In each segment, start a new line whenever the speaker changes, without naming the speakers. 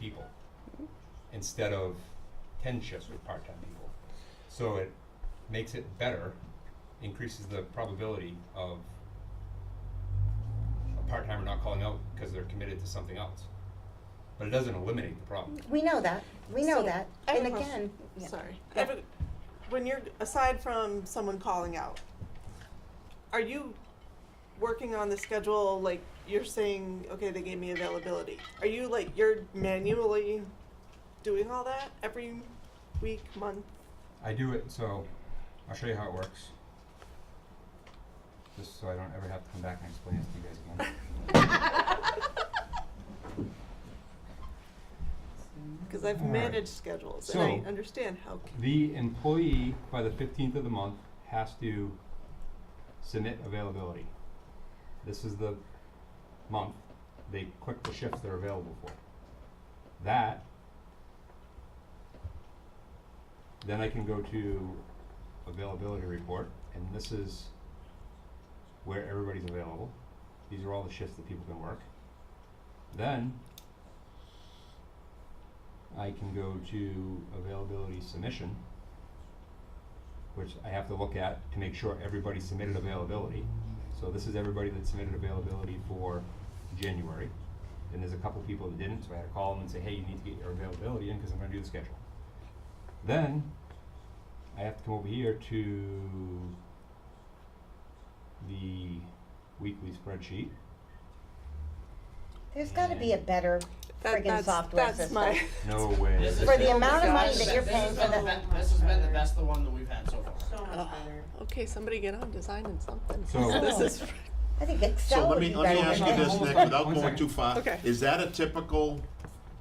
people instead of ten shifts with part-time people. So it makes it better, increases the probability of a part-timer not calling out because they're committed to something else. But it doesn't eliminate the problem.
We know that, we know
So,
that,
I have
and
a
again,
question.
yeah.
Sorry.
Yeah.
I have a- When you're, aside from someone calling out, are you working on the schedule, like, you're saying, okay, they gave me availability? Are you like, you're manually doing all that every week, month?
I do it, so I'll show you how it works. Just so I don't ever have to come back and explain it to you guys again.
Because I've
All right.
managed schedules and I
So-
understand how,
The employee, by the fifteenth of the month, has to submit availability. This is the month, they click the shifts they're available for. That, then I can go to availability report, and this is where everybody's available. These are all the shifts that people can work. Then, I can go to availability submission, which I have to look at to make sure everybody submitted availability. So this is everybody that submitted availability for January. And there's a couple people that didn't, so I had to call them and say, hey, you need to get your availability in because I'm gonna do the schedule. Then, I have to come over here to the weekly spreadsheet.
there's gotta be a better
that,
friggin'
that's,
software
that's
system.
my,
No way.
This is-
For the amount of
this
money
is-
that you're paying for
This has
the,
been, the- this has been the best, the one that we've had so far.
So much better.
okay, somebody get on designing something.
So-
This is,
I think
So
Excel
let
would
me,
be
let
better
me
than
ask
this.
you this,
Hold
Nick,
on,
without
one
going
second.
too far.
Okay.
Is that a typical,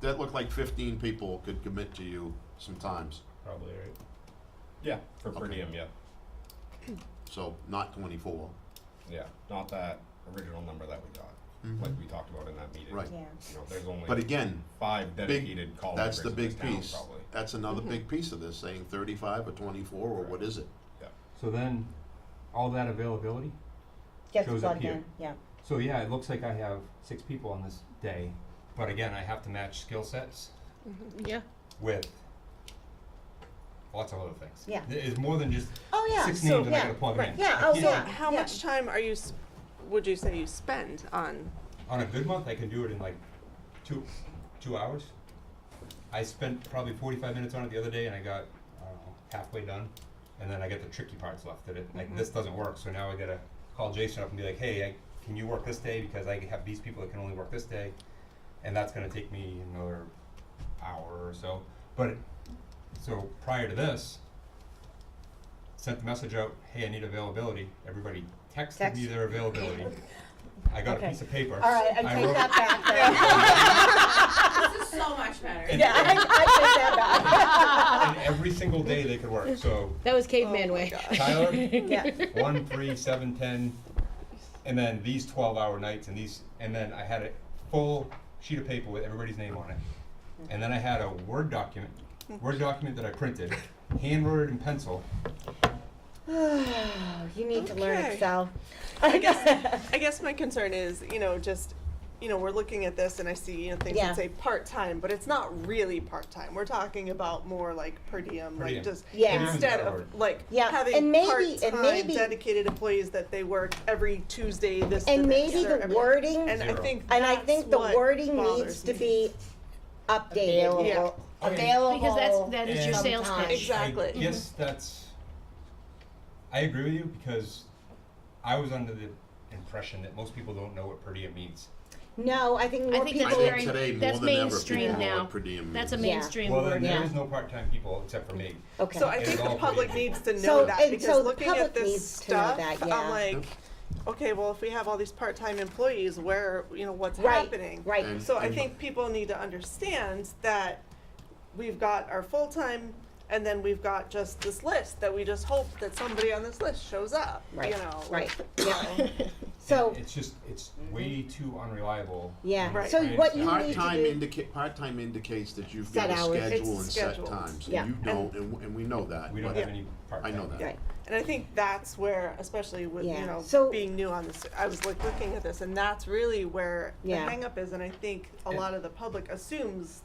that looked like fifteen people could commit to you sometimes,
Probably, right? Yeah, for per
Okay.
diem, yeah,
so not twenty-four.
yeah, not that original number that we got, like we talked about in that meeting.
Mm-hmm. Right.
Yeah.
You know, there's only
But again,
five
big,
dedicated call
that's
makers
the
in this
big
town,
piece.
probably.
That's another
Mm-hmm.
big piece of this, saying thirty-five or twenty-four, or what is it?
So then, all that availability,
Gets
shows up
plugged
here.
in, yeah.
So yeah, it looks like I have six people on this day, but again, I have to match skill sets
yeah.
with lots of other things.
Yeah.
It is more than just
Oh, yeah,
six
so-
names that I
yeah,
gotta plug
right.
in.
Yeah,
I
oh,
can't-
yeah.
How much time are you, s- would you say you spend on
On a good month, I can do it in like two, two hours. I spent probably forty-five minutes on it the other day and I got, I don't know, halfway done. And then I got the tricky parts left that it,
Mm-hmm.
like, this doesn't work, so now I gotta call Jason up and be like, hey, I, can you work this day? Because I have these people that can only work this day. And that's gonna take me another hour or so. But, it- so prior to this, sent the message out, hey, I need availability. Everybody texted me
Text.
their availability. I got a
Okay.
piece of paper.
All right, I
wrote-
take that back then.
This is so much better.
Yeah, I, I take that
And every single day they could work, so
That was caveman way.
Tyler,
back. Yeah,
one, three, seven, ten, and then these twelve hour nights and these, and then I had a full sheet of paper with everybody's name on it. And then I had a Word document, Word document that I printed, handwritten in pencil,
you need to learn
Okay.
Excel.
I guess I guess my concern is, you know, just you know, we're looking at this and I see, you know, things
Yeah.
that say part time, but it's not really part time. We're talking about more like per diem,
Per
like
diem.
just
Yeah. Per diem's
instead
a better
of
word.
like
Yeah,
having
and maybe- and
part-time
maybe-
dedicated employees that they work every Tuesday this to
And
this,
maybe
or
the
every-
wording,
and I
Zero.
think
and I
that's
think the
what
wording needs
bothers
to
me.
be updated,
Available.
Yeah.
available.
Because that's, that is your
And-
sales pitch.
Exact- Exactly.
I guess
Mm-hmm.
that's. I agree with you because I was under the impression that most people don't know what per diem means.
No, I think
I
more
think
people.
I
That's
think
very-
today, more
that's
than ever,
mainstream
people know
now.
what per diem
That's a
means.
Yeah.
mainstream
Well, then
word
there
yeah.
is no part-time people except for me.
Okay.
So I
It is
think
all
the
per
public
diem.
needs to know
So-
that
and
because
so the
looking at
public
this
needs to know
stuff,
that, yeah.
I'm like, okay, well, if we have all these part-time employees, where you know what's
Right,
happening?
right.
And-
So I
and-
think people need to understand that we've got our full-time and then we've got just this list that we just hope that somebody on this list shows up, you
Right,
know?
right,
yeah.
So,
It's just, it's way too unreliable.
yeah,
Right.
so
I
what you
understand.
need
Part-time
to do,
indica- part-time indicates that you've
Set
got a
hours.
schedule
It's
and set
scheduled.
times,
Yeah.
and you don't, and, w- and we know that.
We don't
but-
have any part-time.
I know that.
Yeah.
Right.
And I think that's where, especially with,
Yeah.
you know,
So-
being new on this, I was like looking at this and that's really where the
Yeah.
hangup is. And I think a
Yeah.
lot of the public assumes